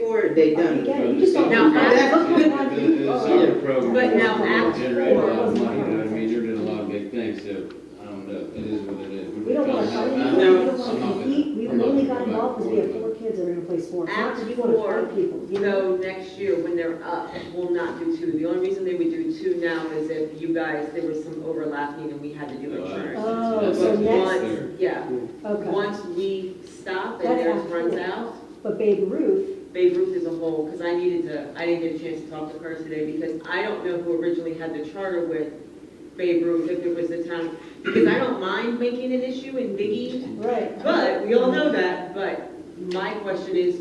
four, they done. it. Yeah, you just don't. Now, that's- Summer program. But now Act Generate a lot of Four. money, you know what I mean, you're doing a lot of big things, so, I don't know, it is what it is. We're We don't wanna trying fight, to we find don't some wanna of it. compete, we We're not only gonna got go involved because we back have and four forth. kids that are gonna play sports, not Act because you wanna four, fight people, you know? So next year, when they're up, we'll not do two. The only reason they would do two now is if you guys, there was some overlapping and we had to do So, insurance. Oh, that's- so that's next- there. Once, yeah, Okay, once we stop and That's theirs Act runs four. out, but Babe Ruth, Babe Ruth is a whole, because I needed to, I didn't get a chance to talk to her today because I don't know who originally had the charter with Babe Ruth, if it was the town. Because I don't mind making an issue in Biggie, right, But, we all know that, but my question is,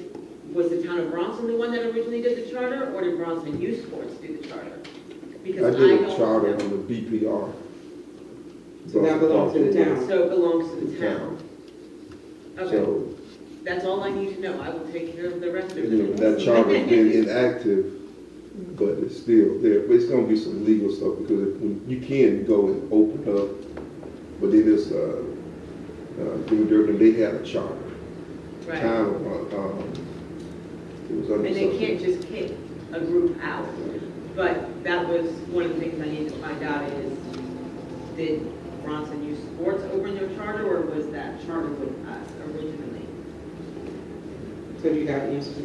was the town of Bronson the one that originally did the charter, or did Bronson Youth Sports do the charter? I Because did don't a charter know. on the BPR. So that belongs to the town. So it belongs to The the town. town. Okay, So, that's all I need to know, I will take care of the rest of you know, it. that charter's been inactive, but it's still there. But it's gonna be some legal stuff because if- when you can go and open up, but it is, uh, uh, Jimmy Durkin, they had a charter. Right, Town, uh, um, it was under. and they something. can't just kick a group out, but that was one of the things I needed to find out is, did Bronson Youth Sports open their charter, or was that charter with us originally? So you got answers?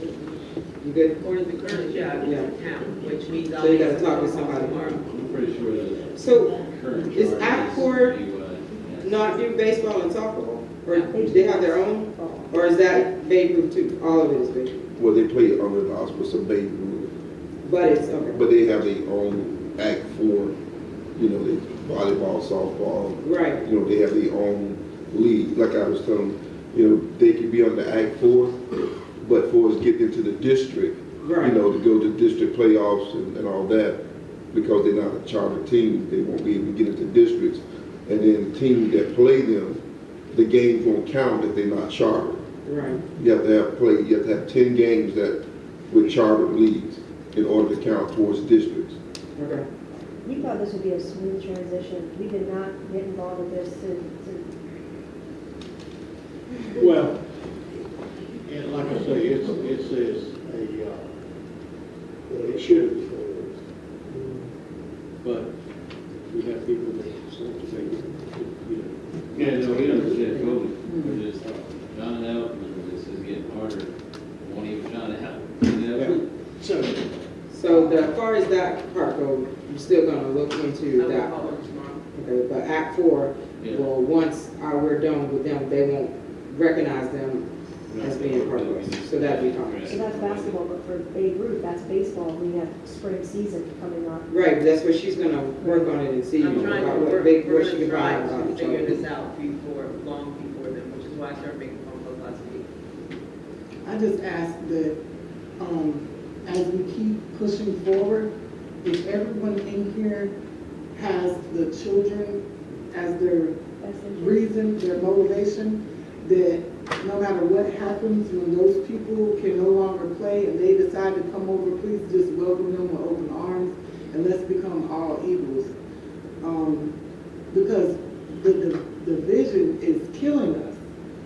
You good? Or the current job is in town, which means I'll. So you make gotta some talk to phone calls somebody. tomorrow. I'm pretty sure the So current. Is charge Accor DUI. not do baseball and softball? Or No. they have their own? Or is that Babe Ruth too? All of it is Babe Ruth? Well, they play under the auspices of Babe Ruth, But it's, okay, but they have their own act for, you know, they volleyball, softball, right, you know, they have their own league. Like I was telling, you know, they could be under Act Four, but for us getting into the district, you right. know, to go to district playoffs and, and all that, because they're not a charter team, they won't be able to get into districts. And then the team that play them, the games won't count if they're not chartered. Right. You have to have played, you have to have ten games that with chartered leagues in order to count towards districts. Okay. we thought this would be a smooth transition, we did not get involved with this to, to Well, and like I say, it's, it's, it's a, uh, well, it should be four years. But we have people that want to make, it, you know. Yeah, no, we understand totally. We're just trying it out, and this is getting harder. Won't even try it out, you know? So, So the, as far as that part goes, you're still gonna look I into will that. call her tomorrow. Okay, but Act Four, Yeah. well, once uh, we're done with them, they won't recognize them. That's being part of us, so that'd be fine. So that's basketball, but for Babe Ruth, that's baseball, we have spring season coming up. Right, but that's where she's gonna work on it and see I'm trying about to, what work- big, we're what she gonna can try find about to the figure charter. this out before, long before then, which is why I started making phone calls last week. I just ask that, um, as we keep pushing forward, if everyone in here has the children as their That's interesting. reason, their motivation, that no matter what happens, when those people can no longer play and they decide to come over, please just welcome them with open arms and let's become all equals. Um, because the, the, the division is killing us.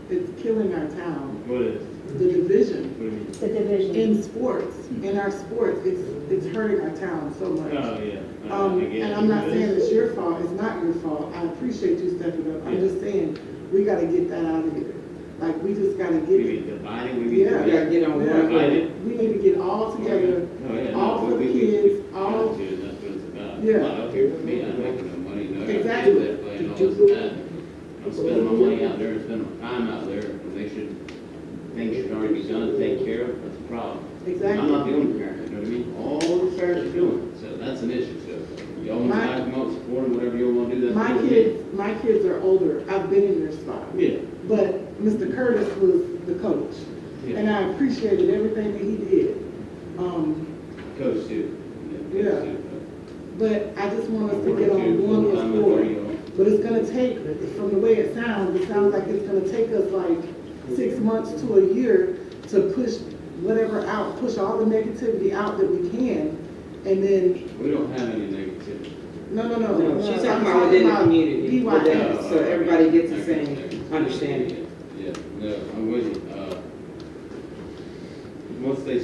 It's killing our town, What is, the division what do you mean? The division. in sports, in our sports, it's, it's hurting our town so much. Oh, yeah. Um, I get and it. I'm not saying it's your fault, it's not your fault, I appreciate you stepping up, I'm just saying, we gotta get that out of here. Like, we just gotta We get be it, dividing, we be. Yeah. You gotta get on Yeah. one. Divided. we need to get all together, Oh, yeah, no, all we- for the we- we- kids, we all, got to, that's what it's about. Yeah. I'm not out here for me, I don't make no money, no, I do that, Exactly. but you know, it's that. I'm spending my money out there, and spending my time out there, and they should, things should already be done, take care of, that's a problem. I'm not exactly. the only parent, you know what I mean, all the parents are doing, so that's an issue, so, y'all want to My- back them up, support them, whatever y'all want to do, that's. My what we do. kids, my kids are older, I've been in their spot, Yeah, but Mr. Curtis was the coach, yeah, and I appreciated everything that he did. Um, coach too. Yeah. coach too. but I just want us to Or get on two, one I'm little with her, board. you know. But it's gonna take, from the way it sounds, it sounds like it's gonna take us like six months to a year to push whatever out, push all the negativity out that we can. And then, We don't have any negativity. no, no, no. No, she's talking I'm about within the about community, DYS. so everybody gets the same understanding. Yeah, no, I'm with you. Uh, Once they